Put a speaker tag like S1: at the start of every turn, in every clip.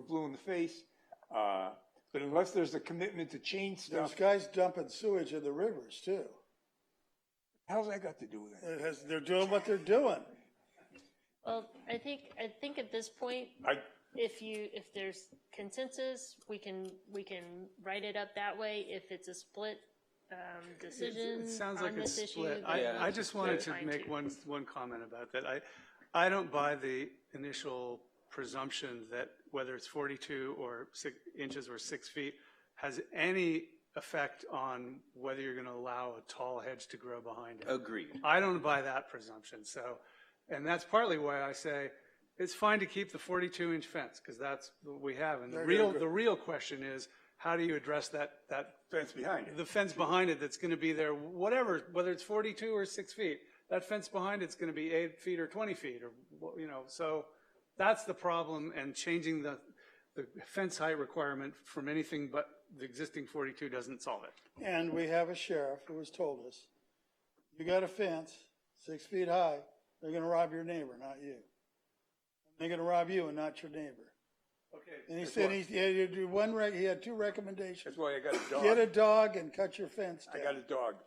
S1: blue in the face. Uh, but unless there's a commitment to change
S2: Those
S1: stuff,
S2: guys dumping sewage in the rivers too.
S1: how's that got to do with it?
S2: It has, they're doing what they're doing.
S3: Well, I think, I think at this point,
S1: I,
S3: if you, if there's consensus, we can, we can write it up that way. If it's a split um, decision
S4: It sounds
S3: on
S4: like it's
S3: this issue.
S4: split.
S3: then
S4: I, I
S3: we
S4: just
S3: can
S4: wanted to
S3: fine
S4: make
S3: tune.
S4: one, one comment about that. I, I don't buy the initial presumption that whether it's 42 or six inches or six feet has any effect on whether you're going to allow a tall hedge to grow behind it.
S5: Agreed.
S4: I don't buy that presumption, so, and that's partly why I say it's fine to keep the 42-inch fence, because that's what we have. And the real, the real question is, how do you address that, that? Fence
S1: behind it.
S4: The fence behind it that's going to be there, whatever, whether it's 42 or 6 feet, that fence behind it's going to be 8 feet or 20 feet, or, wha- you know, so that's the problem, and changing the, the fence height requirement from anything but the existing 42 doesn't solve it.
S2: And we have a sheriff who has told us, you got a fence six feet high, they're gonna rob your neighbor, not you. They're gonna rob you and not your neighbor.
S4: Okay.
S2: And he said he's- he had to do one, rec- he had two recommendations.
S1: that's why I got a
S2: Get a
S1: dog.
S2: dog and cut your fence
S1: I got
S2: down,
S1: a dog.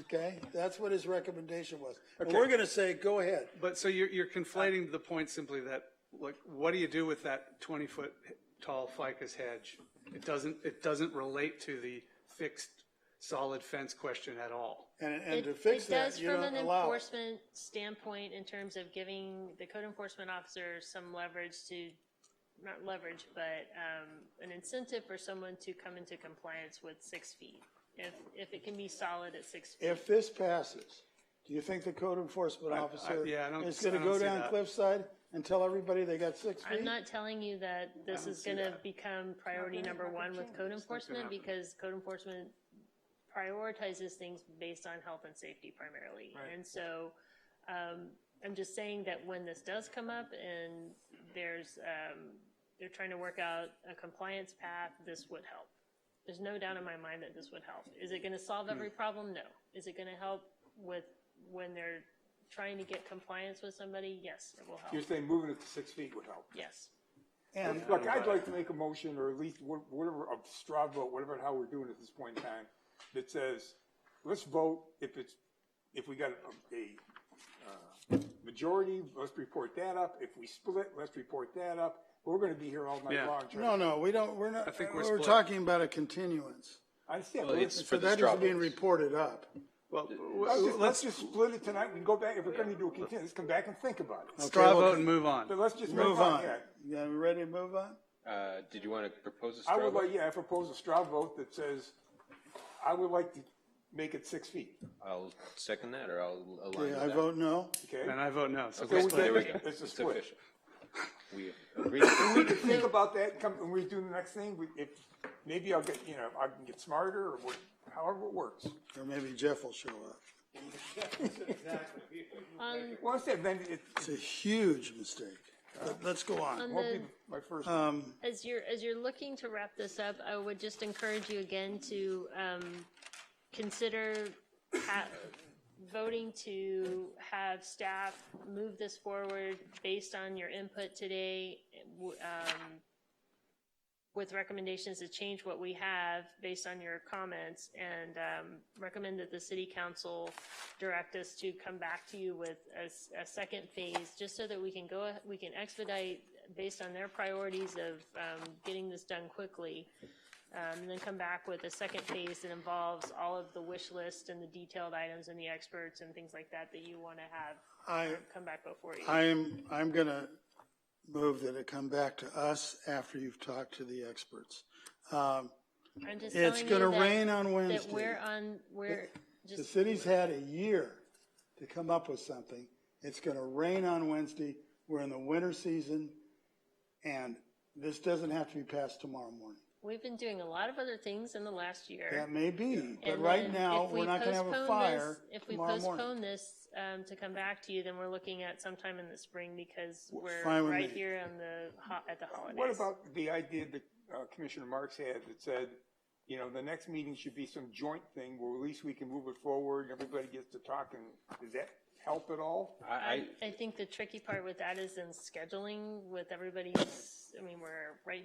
S2: okay? That's what his recommendation was. And
S1: Okay.
S2: we're gonna say, go ahead.
S4: But so you're, you're conflating the point simply that, like, what do you do with that 20-foot tall ficus hedge? It doesn't, it doesn't relate to the fixed, solid fence question at all.
S2: And,
S3: It-
S2: and to fix that, you
S3: It does
S2: don't
S3: from an
S2: allow. it.
S3: enforcement standpoint in terms of giving the code enforcement officer some leverage to, not leverage, but um, an incentive for someone to come into compliance with six feet. If, if it can be solid at six feet.
S2: If this passes, do you think the code enforcement
S4: I-
S2: officer
S4: yeah, I don't-
S2: is
S4: I
S2: gonna
S4: don't
S2: go
S4: see
S2: down
S4: that.
S2: cliffside and tell everybody they got six feet?
S3: I'm not telling you that this is going to become priority number one with code enforcement because code enforcement prioritizes things based on health and safety primarily. And so um, I'm just saying that when this does come up and there's, um, they're trying to work out a compliance path, this would help. There's no doubt in my mind that this would help. Is it going to solve every problem? No. Is it going to help with when they're trying to get compliance with somebody? Yes, it will
S1: You're
S3: help.
S1: saying moving it to six feet would help.
S3: Yes.
S2: And
S1: Look, I'd like to make a motion, or at least wha- whatever, a straw vote, whatever, how we're doing at this point in time, that says, let's vote if it's, if we got a, a, uh, majority, let's report that up. If we split, let's report that up. We're gonna be here all night
S4: Yeah.
S1: long. trying-
S2: No, no, we don't, we're not,
S4: think we're
S2: we're
S4: split.
S2: talking about a continuance.
S1: I understand.
S5: Well,
S1: but
S5: it's
S1: let's-
S5: for
S2: So
S5: the
S2: that
S5: straw
S2: is being
S5: votes.
S2: reported up.
S4: Well,
S1: Let's
S4: w-
S1: just, let's
S4: let's
S1: just split it tonight. We can go back, if we're gonna do a contingent, let's come back and think about it.
S4: straw
S2: Okay, well,
S4: vote and move on.
S1: But let's just
S2: Move on.
S1: yeah.
S2: You guys ready to move on?
S5: Uh, did you want to propose a straw
S1: I would
S5: vote?
S1: like, yeah, I propose a straw vote that says, I would like to make it six feet,
S5: I'll second that, or I'll align
S2: Okay,
S5: with
S2: I
S5: that.
S2: vote no.
S1: okay?
S4: And I vote no, so
S5: Okay,
S4: we're
S5: there we
S4: split.
S5: go.
S1: It's a
S5: It's
S1: split.
S5: official. We agreed. to
S1: we
S5: it.
S1: can think about that, and come, when we do the next thing, we, if, maybe I'll get, you know, I can get smarter, or what- however it works.
S2: Or maybe Jeff will show up.
S3: On,
S1: Well, I said, then it,
S2: It's a huge mistake. But let's go on.
S3: on
S1: it won't
S3: the,
S1: be my first,
S2: Um,
S3: as you're, as you're looking to wrap this up, I would just encourage you again to, um, consider ha- voting to have staff move this forward based on your input today, w- um, with recommendations to change what we have based on your comments and, um, recommend that the city council direct us to come back to you with a, s- a second phase, just so that we can go, we can expedite based on their priorities of, um, getting this done quickly. Um, and then come back with a second phase that involves all of the wish list and the detailed items and the experts and things like that that you want to have
S2: I,
S3: come back before you.
S2: I am, I'm gonna move that it come back to us after you've talked to the experts. Um,
S3: I'm just
S2: it's
S3: telling you
S2: gonna
S3: that-
S2: rain on
S3: That
S2: Wednesday.
S3: we're on, we're
S2: The
S3: just,
S2: city's had a year to come up with something. It's gonna rain on Wednesday. We're in the winter season. And this doesn't have to be passed tomorrow morning.
S3: we've been doing a lot of other things in the last year.
S2: That may be, but
S3: And
S2: right
S3: then
S2: now,
S3: if we
S2: we're not gonna have a
S3: postpone
S2: fire
S3: this- If we
S2: tomorrow morning.
S3: postpone this um, to come back to you, then we're looking at sometime in the spring because we're
S2: fine with
S3: right
S2: me.
S3: here on the, ho- at the holidays.
S1: what about the idea that uh, Commissioner Marks had that said, you know, the next meeting should be some joint thing, where at least we can move it forward, everybody gets to talk, and does that help at all?
S5: I, I,
S3: I think the tricky part with that is in scheduling with everybody's, I mean, we're right